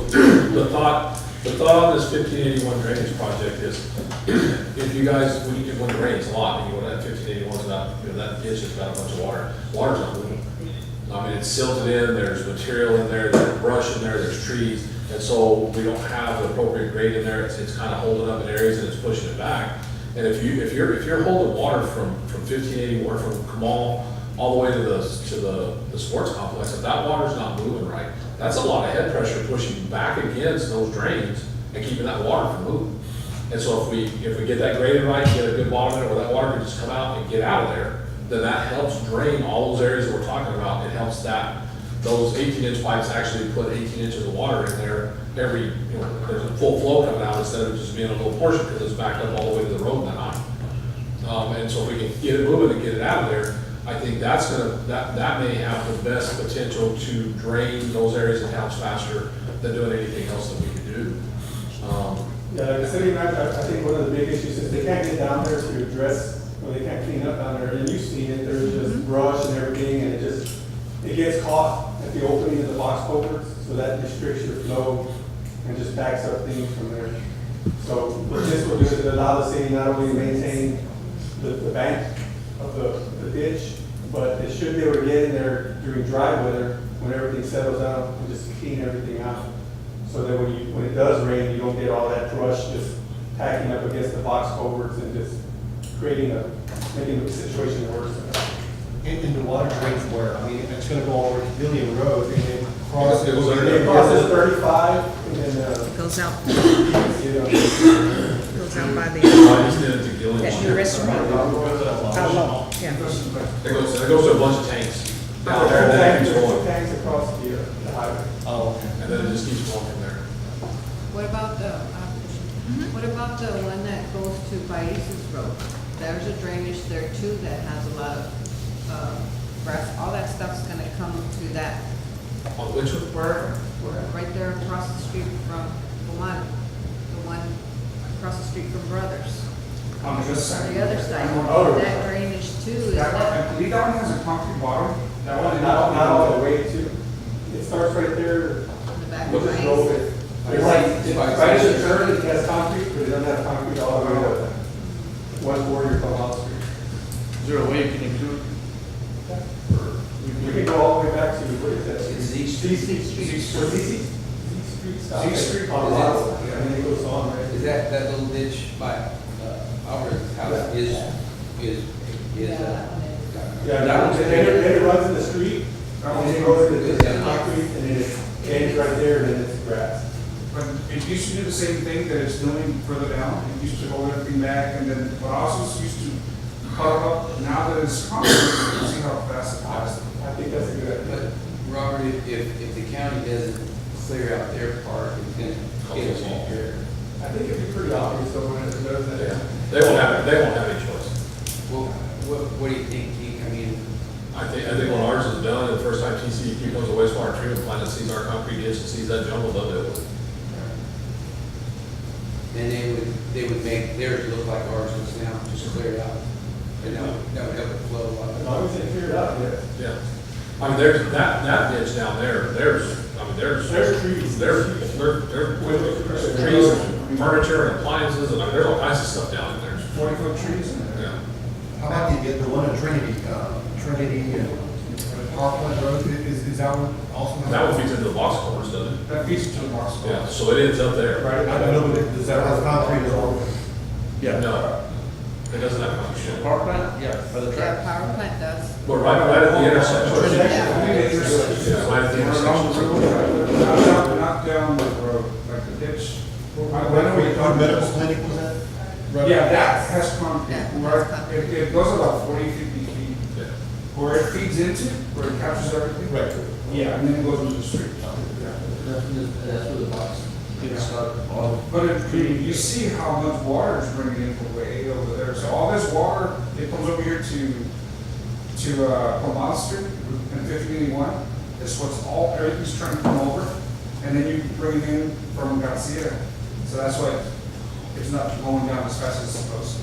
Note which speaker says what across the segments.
Speaker 1: the thought, the thought on this fifteen eighty-one drainage project is, if you guys, when you, when it rains a lot, and you want that fifteen eighty-one's not, you know, that ditch has got a bunch of water, water's not moving. I mean, it's silted in, there's material in there, there's brush in there, there's trees, and so we don't have the appropriate grade in there, it's, it's kind of holding up in areas and it's pushing it back. And if you, if you're, if you're holding water from, from fifteen eighty-one, from Kamal, all the way to the, to the, the sports complex, if that water's not moving right, that's a lot of head pressure pushing back against those drains and keeping that water from moving. And so if we, if we get that graded right, get a good bottom in it, where that water can just come out and get out of there, then that helps drain all those areas that we're talking about. It helps that, those eighteen inch pipes actually put eighteen inches of water in there every, you know, there's a full flow coming out instead of just being a little portion, because it's backed up all the way to the road and high. Um, and so if we can get it moving and get it out of there, I think that's gonna, that, that may have the best potential to drain those areas of towns faster than doing anything else that we could do. Um,
Speaker 2: Yeah, like Uh, the city manager, I I think one of the big issues is they can't get down there to address, or they can't clean up down there, and you've seen it, there's just brush and everything, and it just, it gets caught at the opening of the box culverts, so that restricts your flow and just backs up things from there. So what this will do is it allow the city not only to maintain the, the bank of the, the ditch, but it should be able to get in there during dry weather, when everything settles down, and just clean everything out. So that when you, when it does rain, you don't get all that brush just packing up against the box culverts and just creating a, making the situation worse.
Speaker 3: And, and the water drains where, I mean, it's gonna go over Pavilion Road and then cross.
Speaker 1: It goes
Speaker 3: over-
Speaker 1: under.
Speaker 2: It crosses thirty-five and then, uh,
Speaker 4: Goes out,
Speaker 2: you know,
Speaker 4: goes out by
Speaker 1: I
Speaker 4: the,
Speaker 1: just did it to Gillian.
Speaker 4: that new restaurant, out low, yeah.
Speaker 1: It goes, it goes to a bunch of tanks down there, and then it
Speaker 2: tanks,
Speaker 1: keeps going,
Speaker 2: tanks across the, uh, the highway.
Speaker 3: Oh, okay.
Speaker 1: and then it just keeps going from there.
Speaker 5: What about the, uh, what about the one that goes to Baez's Road? There's a drainage there too that has a lot of uh, grass, all that stuff's gonna come to that,
Speaker 1: On which one?
Speaker 5: where, where, right there across the street from the one, the one across the street from Brothers.
Speaker 6: On this side.
Speaker 5: The other side,
Speaker 2: Oh.
Speaker 5: that drainage too is
Speaker 6: That one,
Speaker 5: that,
Speaker 6: I believe that one has a concrete bottom. That one
Speaker 2: Not,
Speaker 6: is
Speaker 2: not all the way to, it starts right there,
Speaker 5: in the back
Speaker 2: Look
Speaker 5: of
Speaker 2: at road.
Speaker 5: Baez's.
Speaker 2: It's like, it's right to the curb, it has concrete, but it doesn't have concrete all the way up. One border from Wall Street.
Speaker 7: Is there a way you can include?
Speaker 2: We could go all the way back to, what is that?
Speaker 7: Z
Speaker 2: ZC Street. Or ZC? Street stop.
Speaker 7: Z Street.
Speaker 2: On Laurel, and then it goes on, right?
Speaker 7: Is that, that little ditch by, uh, Albert's house is, is, is, uh.
Speaker 2: Yeah,
Speaker 7: that
Speaker 2: and
Speaker 7: one's-
Speaker 2: then it, then it runs in the street, and then it goes to the,
Speaker 7: Yeah.
Speaker 2: concrete, and then it ends right there, and then it's grass.
Speaker 6: But it used to do the same thing that it's doing further down. It used to hold everything back and then, but also it's used to cover up. Now that it's concrete, you can see how fast it
Speaker 2: I
Speaker 6: passed.
Speaker 2: I think that's a good idea.
Speaker 7: But, Robert, if, if the county doesn't clear out their part, it's gonna get us all here.
Speaker 2: I think it'd be pretty obvious, though, when it does
Speaker 1: Yeah,
Speaker 2: that.
Speaker 1: they won't have, they won't have any choice.
Speaker 7: Well, what, what do you think, Keith? I mean,
Speaker 1: I think, I think when ours is done, the first time TCEQ comes to wastewater treatment plant and sees our concrete ditch and sees that jumble, they'll do it.
Speaker 7: then they would, they would make theirs look like ours looks now, just clear it out. And that would, that would help it flow a lot.
Speaker 2: As long as they figure it out, yeah.
Speaker 1: Yeah. I mean, there's, that, that ditch down there, there's, I mean, there's.
Speaker 2: There's trees.
Speaker 1: There, there, there's trees, furniture, and appliances, and I mean, there's all kinds of stuff down in there.
Speaker 6: Forty foot trees in there.
Speaker 1: Yeah.
Speaker 3: How about the, the one at Trinity, uh, Trinity and Parkland Road, is, is that one also?
Speaker 1: That one feeds into the box cores, doesn't it?
Speaker 6: That feeds to the box.
Speaker 1: Yeah, so it ends up there.
Speaker 3: Right, I don't know, but it- does that have concrete at all?
Speaker 1: No, it doesn't have much.
Speaker 7: Park plant? Yeah, for the
Speaker 5: That power plant does.
Speaker 1: But right, right at the intersection. Yeah, right at the
Speaker 6: Or along the
Speaker 1: intersection.
Speaker 6: road, not down, not down the road, like the ditch. I- when are we talking-
Speaker 3: Medical clinic was that?
Speaker 6: Yeah, that has concrete,
Speaker 5: Yeah,
Speaker 6: where
Speaker 5: that's concrete.
Speaker 6: it, it goes about 40, 50 feet,
Speaker 1: Yeah.
Speaker 6: where it feeds into, where it captures everything.
Speaker 3: Right.
Speaker 6: Yeah, and then it goes into the street.
Speaker 7: That's where the, that's where the box,
Speaker 6: Yeah.
Speaker 7: started.
Speaker 3: Oh.
Speaker 7: All
Speaker 6: But if, you- you see how much water is bringing in from way over there, so all this water, it comes over here to, to, uh, Palmont Street and fifty eighty-one, is what's all, everything's trying to come over, and then you bring it in from Garcia, so that's why it's not going down as fast as it's supposed to.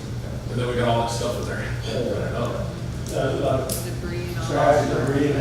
Speaker 1: And then we got all that stuff in there, holding it up.
Speaker 2: There's a lot of
Speaker 5: Debris and all that.
Speaker 2: Uh, trash, debris, and